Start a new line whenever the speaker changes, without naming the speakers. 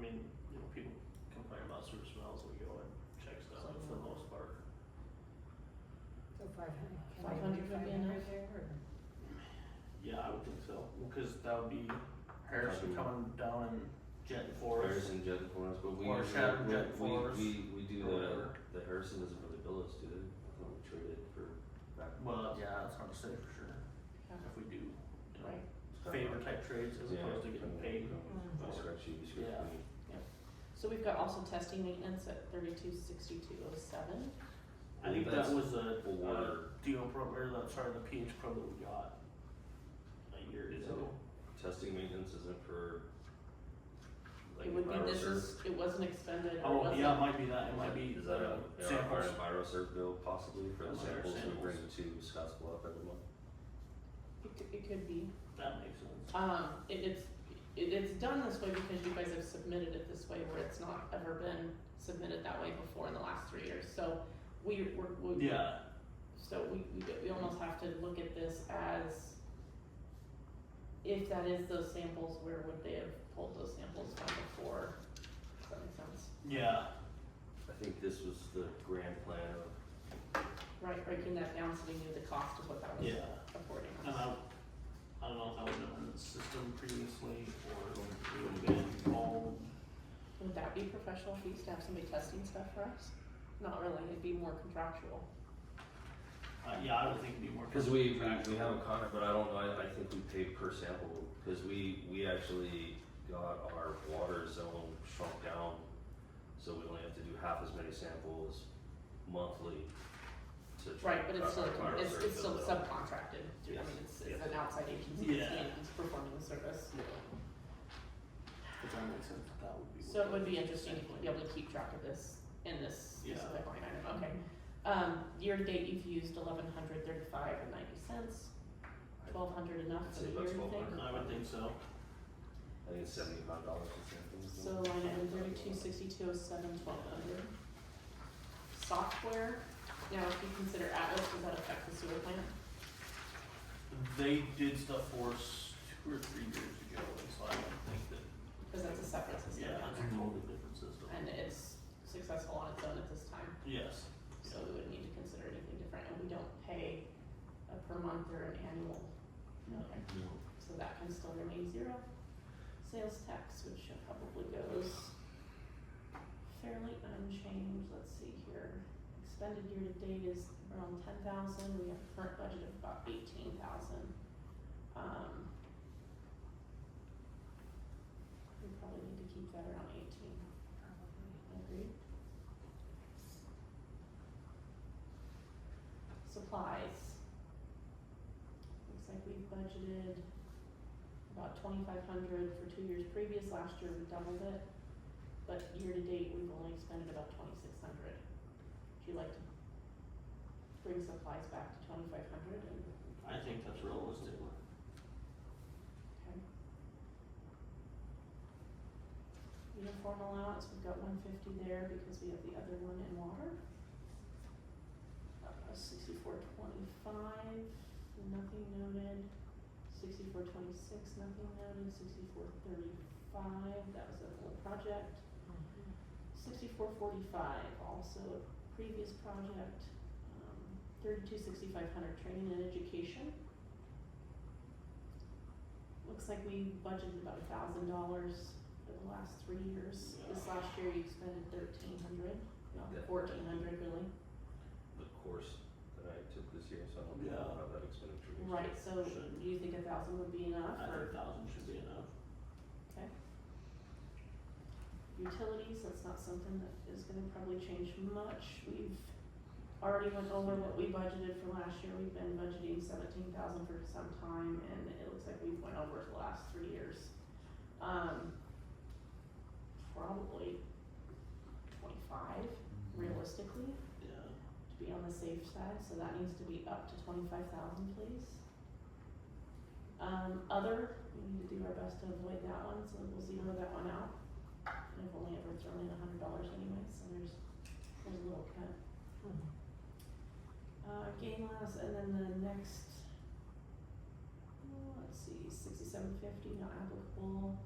mean, you know, people complain about sewer smells, we go and check stuff, but for the most part,
So five hundred.
Five hundred would be enough.
yeah, I would think so, because that would be Harrison
Probably.
coming down and jetting for us.
Harrison Jet Forest, but we
Or
usually-
Shadow
we-
Jet
we,
Forest,
we, we do
or
the,
whatever.
the Harrison doesn't really bill us, do they? I thought we traded for back.
Well, yeah, it's hard to say for sure, if we do, you know,
Right.
It's kinda
favor
like-
type trades as
Yeah,
opposed to getting
kinda
paid.
like,
Mm.
I scratch you, you scratch
Yeah.
me.
So we've got also testing maintenance at thirty-two sixty-two oh seven.
I think that
That's-
was a, a
Or-
deal pro, or the, sorry, the PH pro that we got a year
Is
ago.
Testing maintenance isn't for like
It would be, this
EnviroServ?
is, it wasn't expended or
Oh,
wasn't.
yeah, it might be that, it
Is
might
that-
be
Is that a, yeah, our
samples.
EnviroServ bill possibly for the
Those are our
samples we bring
samples.
to Scotts Bluff every month?
It could, it could be.
That makes sense.
Um, it, it's, it, it's done this way because you guys have submitted it this way where it's not ever been submitted that way before in the last three years. So we, we're, we,
Yeah,
so we, we, we almost have to look at this as if that is those samples, where would they have pulled those samples from before? Does that make sense?
yeah,
I think this was the grand plan of
Right, breaking that down so we knew the cost of what that was
yeah. Uh-huh.
affording us.
And Uh, I, I don't know if that was done in the system previously or it would have been all,
Would that be professional fees to have somebody testing stuff for us? Not really, it'd be more contractual.
uh, yeah, I would think it'd be more.
Because we, we, we
contractual.
have a contract, but I don't know, I, I think we pay per sample, because we, we actually got our water zone shrunk down. So we only have to do half as many samples monthly to try.
Right, but it's still,
to clarify
it's,
our
it's still
bill.
subcontracted, through- I mean, it's, it's an outside agency that's
Yeah.
being- that's performing the service.
Yeah. If that makes sense, that would be.
So it would be
what-
interesting to be able to keep track of this in this
Yeah.
specific line item, okay. Um, year to date, you've used eleven hundred thirty-five and ninety cents, twelve hundred enough
I'd
for
say
the year, you
about
think?
1200.
I would think so.
I think it's seventy-five dollars a sample.
So line item thirty-two sixty-two oh seven twelve hundred. Software, now if you consider Atlas, does that affect the sewer plant?
They did stuff for us two or three years ago, and so I don't think that,
Because that's a separate system
yeah,
now,
it's a totally different system.
and it's successful on its own at this time,
Yes,
so we wouldn't need to consider anything different, and we don't pay a per month or an annual.
No.
Okay, so that can still remain zero. Sales tax, which probably goes fairly unchanged, let's see here. Expended year to date is around ten thousand, we have a current budget of about eighteen thousand. Um. We probably need to keep that around eighteen, agree? Supplies. Looks like we budgeted about twenty-five hundred for two years previous, last year we doubled it. But year to date, we've only expended about twenty-six hundred. Would you like to bring supplies back to twenty-five hundred and,
I think that's realistic.
okay? Uniform allowance, we've got one fifty there because we have the other one in water. Uh, sixty-four twenty-five, nothing noted. Sixty-four twenty-six, nothing noted. Sixty-four thirty-five, that was a whole project. Mm-hmm. sixty-four forty-five, also a previous project, um, thirty-two sixty-five hundred, training and education. Looks like we budgeted about a thousand dollars for the last three years, this last year you expended thirteen hundred, no,
Yeah.
fourteen hundred really.
The course that I took this year, so I don't know
Yeah.
how that expenditure. is.
Right, so
Should-
do you think a thousand would be enough,
I
or,
think thousand should be enough.
okay? Utilities, that's not something that is gonna probably change much, we've already went over what we budgeted for last year, we've been budgeting seventeen thousand for some time, and it looks like we've went over it the last three years. Um, probably twenty-five realistically,
Yeah.
to be on the safe side, so that needs to be up to twenty-five thousand, please. Um, other, we need to do our best to avoid that one, so we'll zero that one out. And I've only ever thrown in a hundred dollars anyway, so there's, there's a little cut.
Mm-hmm.
Uh, gain loss, and then the oh, next, uh, let's see, sixty-seven fifty, not applicable.